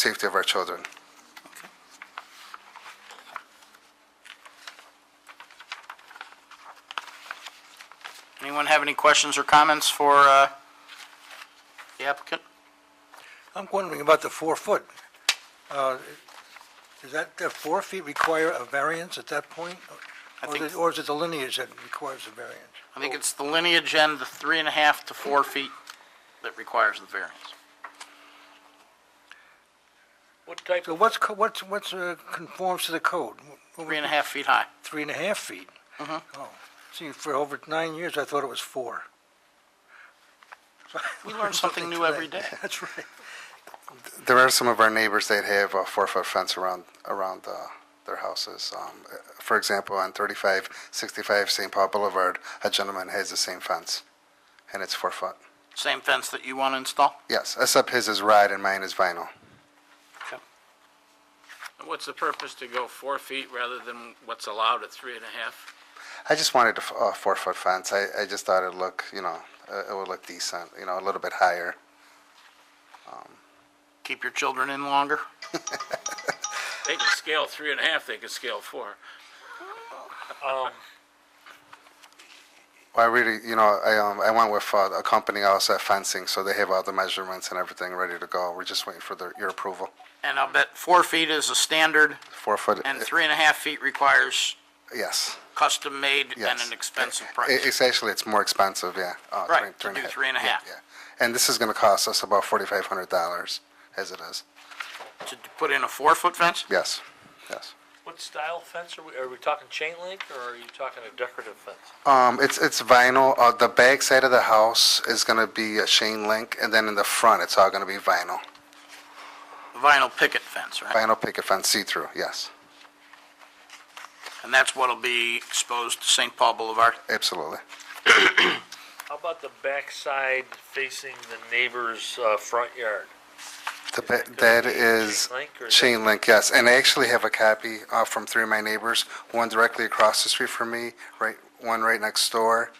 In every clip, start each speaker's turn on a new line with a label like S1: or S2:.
S1: safety of our children.
S2: Anyone have any questions or comments for uh, the applicant?
S3: I'm wondering about the four foot. Uh, Does that, that four feet require a variance at that point?
S2: I
S3: Or is
S2: think-
S3: it- Or is it the lineage that requires a variance?
S2: I think it's the lineage and the three and a half to four feet that requires the variance.
S4: What type
S3: So
S4: of,
S3: what's, co- what's, what's, uh, conforms to the code?
S2: Three
S3: What would-
S2: and a half feet high.
S3: Three and a half feet?
S2: Uh-huh.
S3: Oh, see, for over nine years, I thought it was four.
S2: We learn something new every day.
S3: That's right.
S1: There are some of our neighbors that have a four-foot fence around, around uh, their houses. Um, For example, on 3565 St. Paul Boulevard, a gentleman has the same fence, and it's four foot.
S2: Same fence that you want to install?
S1: Yes, except his is rod and mine is vinyl.
S4: what's the purpose to go four feet rather than what's allowed at three and a half?
S1: I just wanted a f- a four-foot fence. I, I just thought it'd look, you know, uh, it would look decent, you know, a little bit higher.
S2: Keep your children in longer?
S4: They can scale three and a half, they can scale four.
S1: I really, you know, I, um, I went with uh, a company also at fencing, so they have all the measurements and everything ready to go. We're just waiting for their, your approval.
S2: And I'll bet four feet is a standard,
S1: Four foot. uh,
S2: and three and a half feet requires
S1: Yes.
S2: custom-made and
S1: Yes.
S2: an expensive
S1: It-
S2: price.
S1: It's actually, it's more expensive, yeah. Uh,
S2: Right,
S1: three-
S2: to
S1: three and
S2: do
S1: a half.
S2: three and a
S1: Yeah,
S2: half.
S1: Yeah, and this is gonna cost us about forty-five hundred dollars, as it is.
S2: To put in a four-foot fence?
S1: Yes, yes.
S5: What style fence are we, are we talking chain link or are you talking a decorative fence?
S1: Um, it's, it's vinyl, uh, the back side of the house is gonna be a chain link, and then in the front, it's all gonna be vinyl.
S2: Vinyl picket fence, right?
S1: Vinyl picket fence, see-through, yes,
S2: And that's what'll be exposed to St. Paul Boulevard?
S1: absolutely.
S5: How about the backside facing the neighbor's, uh, front yard?
S1: The ba-
S5: that gonna
S1: That
S5: be
S1: is
S5: chain link or is that-
S1: chain link, yes, and I actually have a copy uh, from three of my neighbors, one directly across the street from me, right, one right next door,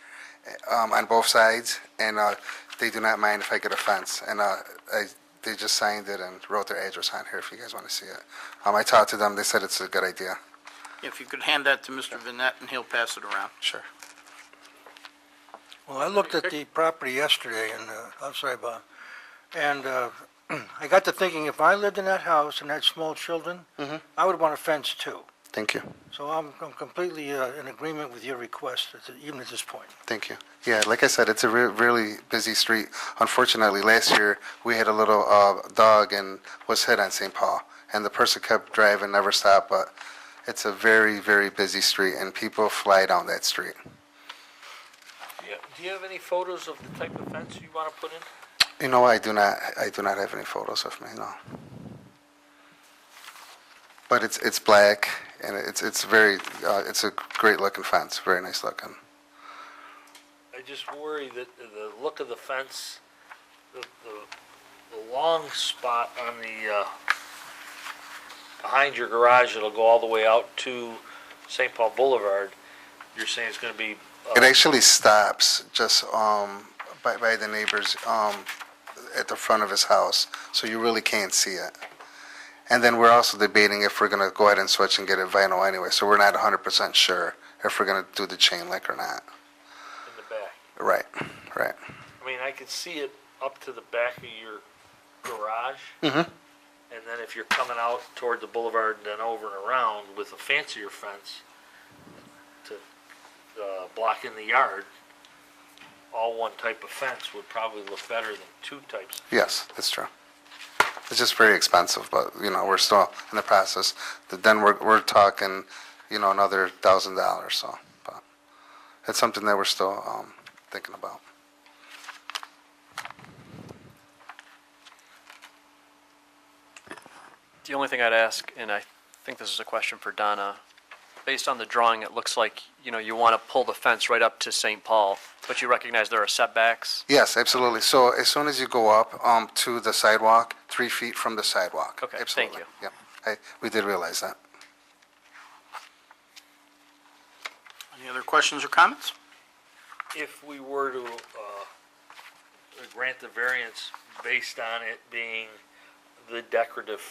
S1: um, on both sides, and uh, they do not mind if I get a fence, and uh, I- they just signed it and wrote their address on here if you guys want to see it. Um, I talked to them, they said it's a good idea.
S2: If you could hand that to Mr. Vinette, and he'll pass it around.
S1: Sure.
S3: Well, I looked at the property yesterday and, uh, I'm sorry, Bob, and, uh, I got to thinking, if I lived in that house and had small children, I would want a fence too.
S1: Thank you,
S3: So I'm, I'm completely uh, in agreement with your request, at the- even at this point.
S1: thank you. Yeah, like I said, it's a re- really busy street. Unfortunately, last year, we had a little uh, dog and was hit on St. Paul, and the person kept driving, never stopped, but it's a very, very busy street, and people fly down that street.
S5: Yeah. Do you have any photos of the type of fence you wanna put in?
S1: You know, I do not, I do not have any photos of me, no. But it's, it's black, and it's, it's very, uh, it's a great looking fence, very nice looking.
S5: I just worry that the look of the fence, the, the, the long spot on the, uh, behind your garage, it'll go all the way out to St. Paul Boulevard. You're saying it's gonna be,
S1: It
S5: uh,
S1: actually stops just, um, by, by the neighbors, um, at the front of his house, so you really can't see it. And then we're also debating if we're gonna go ahead and switch and get it vinyl anyway, so we're not hundred percent sure if we're gonna do the chain link or not.
S5: in the back.
S1: Right, right.
S5: I mean, I could see it up to the back of your garage. And then if you're coming out toward the boulevard and then over and around with a fancier fence to, uh, block in the yard, all one type of fence would probably look better than two types.
S1: Yes, that's true. It's just very expensive, but, you know, we're still in the process. But Then we're, we're talking, you know, another thousand dollars, so, but it's something that we're still, um, thinking about.
S6: The only thing I'd ask, and I think this is a question for Donna, based on the drawing, it looks like, you know, you want to pull the fence right up to St. Paul, but you recognize there are setbacks?
S1: Yes, absolutely. So as soon as you go up, um, to the sidewalk, three feet from the sidewalk.
S6: Okay, thank
S1: Absolutely.
S6: you.
S1: Yep, I, we did realize that.
S2: Any other questions or comments?
S5: If we were to, uh, grant the variance based on it being the decorative